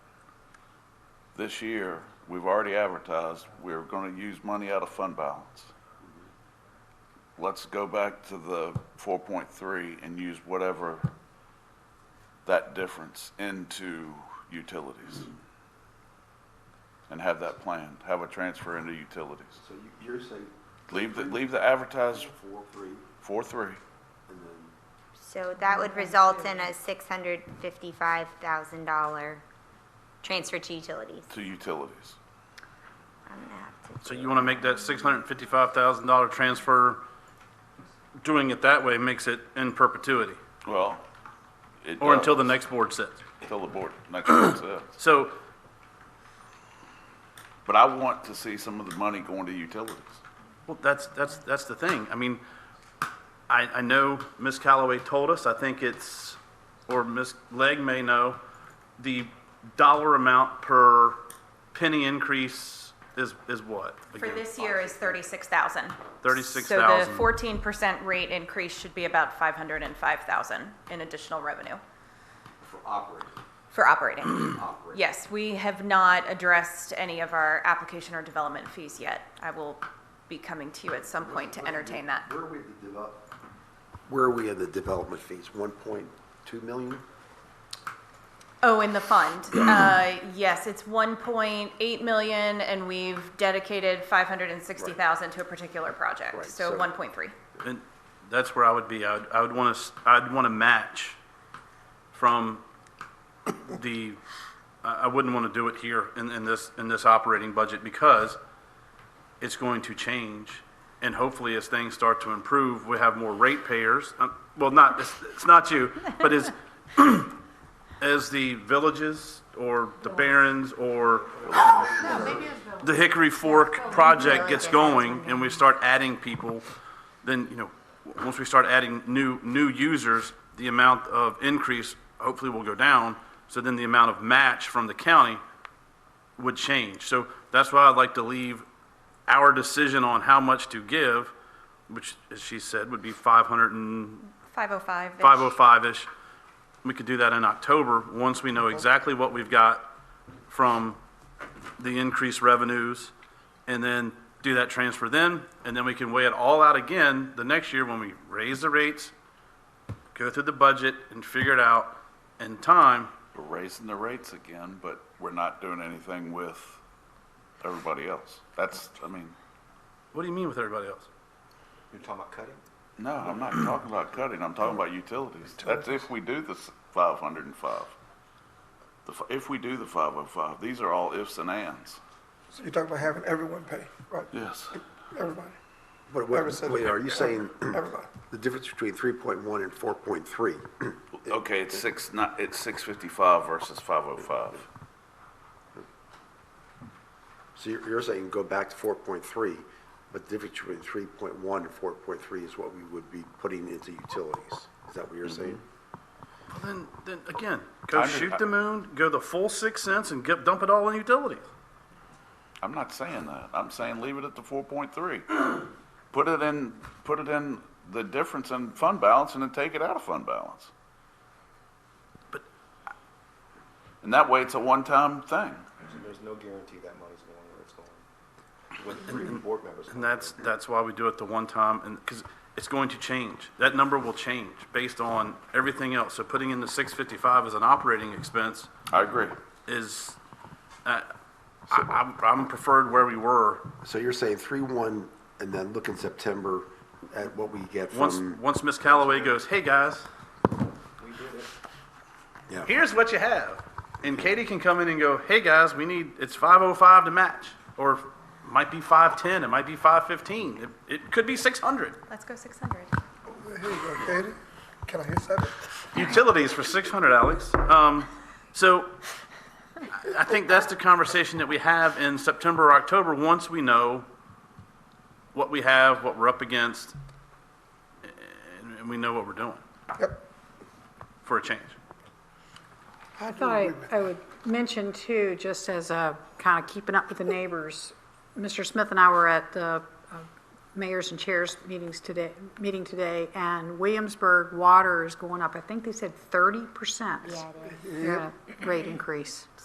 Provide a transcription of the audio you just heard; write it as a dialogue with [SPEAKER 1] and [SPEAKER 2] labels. [SPEAKER 1] this year, we've already advertised, we're going to use money out of fund balance. Let's go back to the 4.3 and use whatever that difference into utilities. And have that planned, have a transfer into utilities.
[SPEAKER 2] So you- you're saying
[SPEAKER 1] Leave the, leave the advertised
[SPEAKER 2] four, three,
[SPEAKER 1] 4.3.
[SPEAKER 2] and then,
[SPEAKER 3] So that would result in a six hundred fifty-five thousand dollar transfer to utilities.
[SPEAKER 1] to utilities.
[SPEAKER 3] I'm gonna have to-
[SPEAKER 4] So you want to make that six hundred and fifty-five thousand dollar transfer? Doing it that way makes it in perpetuity,
[SPEAKER 1] Well, it
[SPEAKER 4] or until the
[SPEAKER 1] does,
[SPEAKER 4] next board sits.
[SPEAKER 1] Until the board, next board says.
[SPEAKER 4] So,
[SPEAKER 1] But I want to see some of the money going to utilities.
[SPEAKER 4] well, that's, that's, that's the thing. I mean, I, I know Ms. Calloway told us, I think it's, or Ms. Legg may know, the dollar amount per penny increase is, is what?
[SPEAKER 5] For
[SPEAKER 4] again?
[SPEAKER 5] this year is thirty-six thousand.
[SPEAKER 4] Thirty-six
[SPEAKER 5] So
[SPEAKER 4] thousand.
[SPEAKER 5] the fourteen percent rate increase should be about five hundred and five thousand in additional revenue
[SPEAKER 2] for operating,
[SPEAKER 5] for operating.
[SPEAKER 2] operating.
[SPEAKER 5] Yes, we have not addressed any of our application or development fees yet. I will be coming to you at some point to entertain that.
[SPEAKER 2] Where are we at the develop, where are we at the development fees? One point two million?
[SPEAKER 5] Oh, in the fund, uh, yes, it's one point eight million and we've dedicated five hundred and sixty thousand to a particular
[SPEAKER 2] Right,
[SPEAKER 5] project, so
[SPEAKER 2] so-
[SPEAKER 5] one point three.
[SPEAKER 4] And that's where I would be. I would, I would want to, I'd want to match from the, I, I wouldn't want to do it here in, in this, in this operating budget because it's going to change. And hopefully as things start to improve, we have more ratepayers. Um, Well, not, it's, it's not you, but as, as the villages or the barons or the Hickory Fork project gets going and we start adding people, then, you know, w- once we start adding new, new users, the amount of increase hopefully will go down. So then the amount of match from the county would change. So that's why I'd like to leave our decision on how much to give, which, as she said, would be five hundred and
[SPEAKER 5] Five oh five.
[SPEAKER 4] 505-ish. We could do that in October, once we know exactly what we've got from the increased revenues, and then do that transfer then, and then we can weigh it all out again the next year when we raise the rates, go through the budget, and figure it out in time.
[SPEAKER 1] We're raising the rates again, but we're not doing anything with everybody else. That's, I mean,
[SPEAKER 4] What do you mean with everybody else?
[SPEAKER 2] You're talking about cutting?
[SPEAKER 1] no, I'm not talking about cutting, I'm talking about utilities. That's if we do the s- 505. The f- If we do the 505, these are all ifs and ands.
[SPEAKER 6] So you're talking about having everyone pay, right?
[SPEAKER 1] Yes.
[SPEAKER 6] Everybody,
[SPEAKER 2] But
[SPEAKER 6] Never
[SPEAKER 2] wait,
[SPEAKER 6] said
[SPEAKER 2] wait,
[SPEAKER 6] that.
[SPEAKER 2] are you saying
[SPEAKER 6] everybody.
[SPEAKER 2] the difference between three point one and four point three?
[SPEAKER 1] Okay, it's six, not, it's 655 versus 505.
[SPEAKER 2] So you're, you're saying go back to four point three, but the difference between three point one and four point three is what we would be putting into utilities? Is that what you're saying?
[SPEAKER 4] Well, Then, then again, go
[SPEAKER 1] I under-
[SPEAKER 4] shoot the moon, go the full six cents and get, dump it all in utilities.
[SPEAKER 1] I'm not saying that. I'm saying leave it at the four point three. Put it in, put it in the difference in fund balance and then take it out of fund balance.
[SPEAKER 4] But-
[SPEAKER 1] And that way it's a one-time thing.
[SPEAKER 7] There's no guarantee that money's going where it's going. With three board members.
[SPEAKER 4] And that's, that's why we do it the one time, and, because it's going to change. That number will change based on everything else. So putting in the six fifty-five as an operating expense
[SPEAKER 1] I agree.
[SPEAKER 4] is, uh, I, I'm, I'm preferred where we were.
[SPEAKER 2] So you're saying three one, and then look in September at what we get
[SPEAKER 4] Once,
[SPEAKER 2] from,
[SPEAKER 4] once Ms. Calloway goes, hey, guys,
[SPEAKER 2] yeah.
[SPEAKER 4] here's what you have. And Katie can come in and go, hey, guys, we need, it's five oh five to match, or it might be five ten, it might be five fifteen, it, it could be six hundred.
[SPEAKER 5] Let's go six hundred.
[SPEAKER 6] Here you go, Katie. Can I hear something?
[SPEAKER 4] utilities for six hundred, Alex. Um, so I- I think that's the conversation that we have in September or October, once we know what we have, what we're up against, and- and we know what we're doing
[SPEAKER 6] Yep.
[SPEAKER 4] for a change.
[SPEAKER 8] I thought I- I would mention too, just as a kind of keeping up with the neighbors, Mr. Smith and I were at the uh, mayors and chairs meetings today, meeting today, and Williamsburg water is going up, I think they said 30%.
[SPEAKER 3] Yeah, it is.
[SPEAKER 8] Yeah, rate increase.